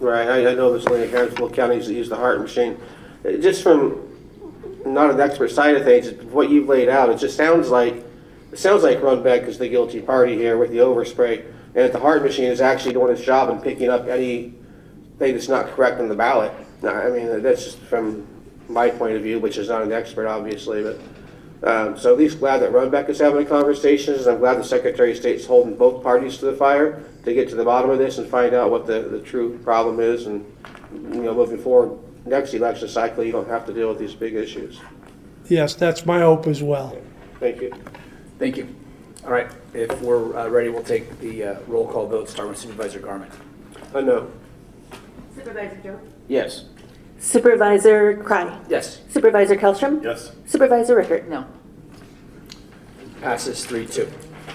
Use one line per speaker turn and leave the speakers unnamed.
Right, I, I know this Lane Harrisville County, he's, he's the heart machine. Uh, Just from, not an expert side of things, what you've laid out, it just sounds like, it sounds like Runbeck is the guilty party here with the overspray. And that the heart machine is actually doing its job and picking up anything that's not correct on the ballot. No, I mean, that's just from my point of view, which is not an expert, obviously, but. Um, so at least glad that Runbeck is having conversations, and I'm glad the Secretary of State's holding both parties to the fire to get to the bottom of this and find out what the, the true problem is, and, you know, moving forward, next election cycle, you don't have to deal with these big issues.
Yes, that's my hope as well.
Thank you.
Thank you. All right, if we're uh, ready, we'll take the uh, roll call vote, start with Supervisor Garment.
Uh, no.
Supervisor Joe?
Yes.
Supervisor Cry.
Yes,
Supervisor Kellstrom.
Yes.
Supervisor Rickert.
No.
passes three two.